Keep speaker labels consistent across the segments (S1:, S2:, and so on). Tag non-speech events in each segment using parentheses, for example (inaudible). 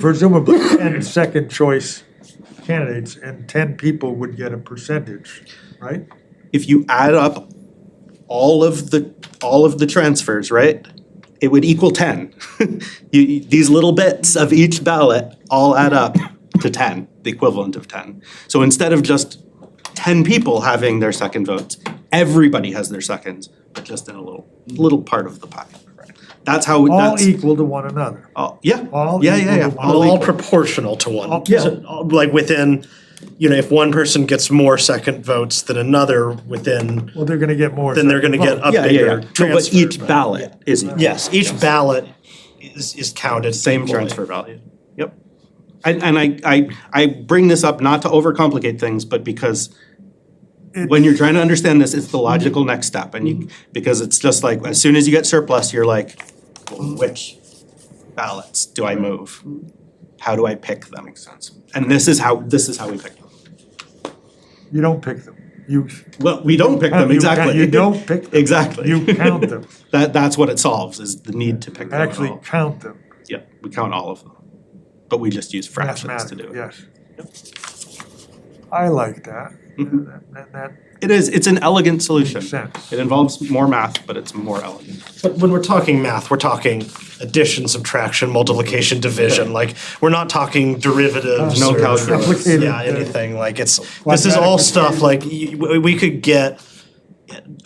S1: presumably ten second choice candidates and ten people would get a percentage, right?
S2: if you add up all of the, all of the transfers, right? It would equal ten. (laughs) You- you- these little bits of each ballot all add up to ten, the equivalent of ten. So instead of just ten people having their second votes, everybody has their seconds, but just in a little, little part of the pie. That's how,
S1: All
S2: that's,
S1: equal to one another.
S2: all- yeah,
S1: all
S2: yeah, yeah,
S1: equal
S2: yeah.
S1: to one.
S2: all
S3: all
S2: equal.
S3: proportional to one.
S1: All- yeah.
S3: So, all- Like within, you know, if one person gets more second votes than another within,
S1: Well, they're gonna get more.
S3: then they're
S1: second
S3: gonna get
S1: votes.
S3: a
S2: Yeah, yeah, yeah.
S3: bigger
S2: No,
S3: transfer.
S2: But each ballot is equal.
S3: Yes, each ballot is, is counted.
S2: Same
S3: equally.
S2: transfer value. Yep. And, and I, I, I bring this up not to overcomplicate things, but because when you're trying to understand this, it's the logical next step. And you, because it's just like, as soon as you get surplus, you're like, well, which ballots do I move? How do I pick them? Makes sense. And this is how, this is how we pick them.
S1: You don't pick them. You,
S2: Well, we don't pick
S1: You
S2: them,
S1: count-
S2: exactly.
S1: you don't pick them.
S2: Exactly.
S1: you count them,
S2: (laughs) That, that's what it solves, is the need to pick them at
S1: actually
S2: all.
S1: count them
S2: Yeah, we count all of them. But we just use fractions to do it.
S1: mathematically, yes. I like that.
S2: Mhm.
S1: That- that- that-
S2: It is, it's an elegant solution.
S1: Makes sense.
S2: It involves more math, but it's more elegant.
S3: But when we're talking math, we're talking addition, subtraction, multiplication, division, like, we're not talking derivatives
S2: No
S3: or-
S2: calculus.
S1: Complicated,
S3: Yeah,
S1: uh,
S3: anything, like, it's, this is all
S1: quadratic
S3: stuff, like, y- we, we could get,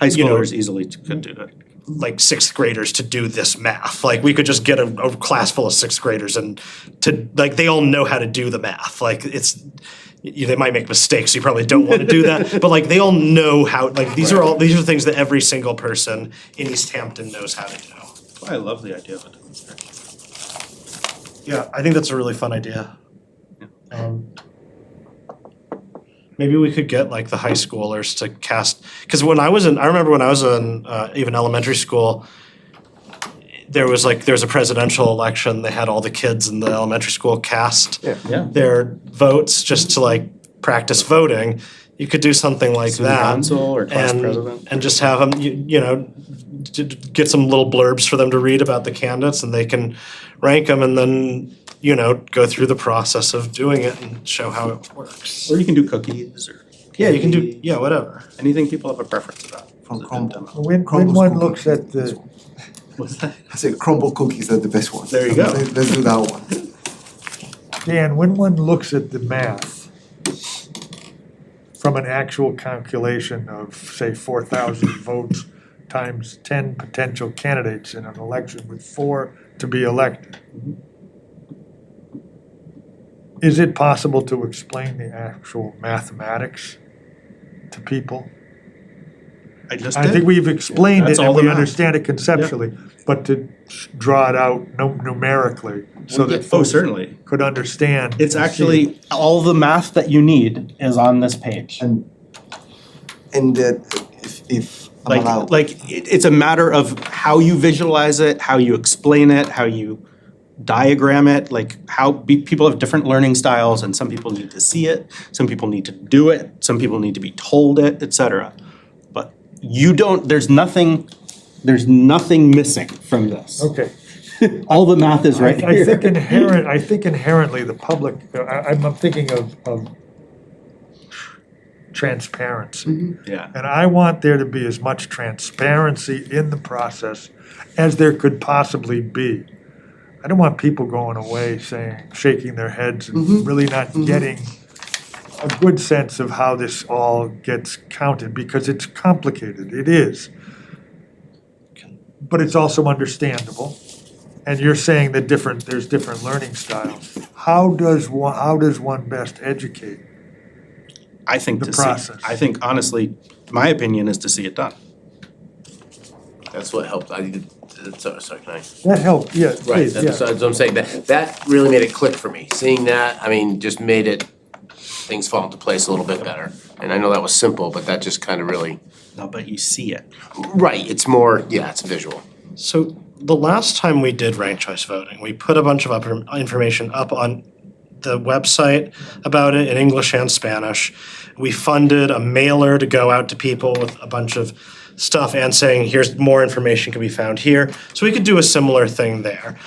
S2: High
S3: You know-
S2: schoolers easily t- could do that.
S3: like, sixth graders to do this math, like, we could just get a, a class full of sixth graders and to, like, they all know how to do the math, like, it's, you, they might make mistakes. You probably don't want to do that, but like they all know how. Like these are all these are things that every single person in East Hampton knows how to do.
S2: I love the idea of a demonstration.
S3: Yeah, I think that's a really fun idea. Um, maybe we could get like the high schoolers to cast because when I was in, I remember when I was in uh, even elementary school, there was like there was a presidential election. They had all the kids in the elementary school cast
S2: Yeah.
S3: their votes just to like practice voting. You could do something like
S2: Student
S3: that
S2: council or class
S3: and,
S2: president.
S3: and just have them, you, you know, d- d- get some little blurbs for them to read about the candidates, and they can rank them, and then you know go through the process of doing it and show how it works.
S2: Or you can do cookies or.
S3: Yeah, you can do
S2: candy,
S3: yeah whatever.
S2: Anything people have a preference about.
S4: From
S2: Is it
S4: Cromwell.
S2: demo?
S1: When, when
S4: Crumble's
S1: one
S4: cookie.
S1: looks at the,
S2: What's that?
S4: I say crumble cookies are the best ones.
S2: There you go.
S4: Let's let's do that one.
S1: Dan, when one looks at the math from an actual calculation of, say, four thousand votes times ten potential candidates in an election with four to be elected, is it possible to explain the actual mathematics to people?
S2: I just
S1: I think
S2: did.
S1: we've explained it
S2: That's
S1: and
S2: all the
S1: we
S2: math.
S1: understand it conceptually, but to s- draw it out nu- numerically so that
S2: Oh,
S1: folks
S2: certainly.
S1: could understand. and
S2: It's
S1: see it.
S2: actually, all the math that you need is on this page.
S4: And and that if if I'm
S2: Like,
S4: allowed.
S2: like, it, it's a matter of how you visualize it, how you explain it, how you diagram it, like how, be- people have different learning styles and some people need to see it, some people need to do it, some people need to be told it, et cetera. But you don't, there's nothing, there's nothing missing from this.
S1: Okay,
S2: All the math is right
S1: I think
S2: here. (laughs)
S1: inherent, I think inherently the public, uh, I, I'm I'm thinking of, of transparency.
S2: Yeah,
S1: And I want there to be as much transparency in the process as there could possibly be. I don't want people going away saying, shaking their heads
S2: Mm-hmm.
S1: and really not getting a good sense of how this all gets counted, because it's complicated, it is. But it's also understandable, and you're saying that different, there's different learning styles. How does one, how does one best educate?
S2: I think
S1: The
S2: to see,
S1: process.
S2: I think honestly, my opinion is to see it done.
S5: That's what helped, I did, sorry, sorry, can I?
S1: That help, yeah,
S5: Right,
S1: please, yeah.
S5: that's, that's what I'm saying, that, that really made it click for me, seeing that, I mean, just made it, things fall into place a little bit better. And I know that was simple, but that just kind of really,
S2: No, but you see it.
S5: right, it's more, yeah, it's visual.
S3: So the last time we did ranked choice voting, we put a bunch of up information up on the website about it in English and Spanish. We funded a mailer to go out to people with a bunch of stuff and saying, here's more information can be found here. So we could do a similar thing there.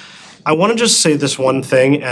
S3: I want to just say this one thing,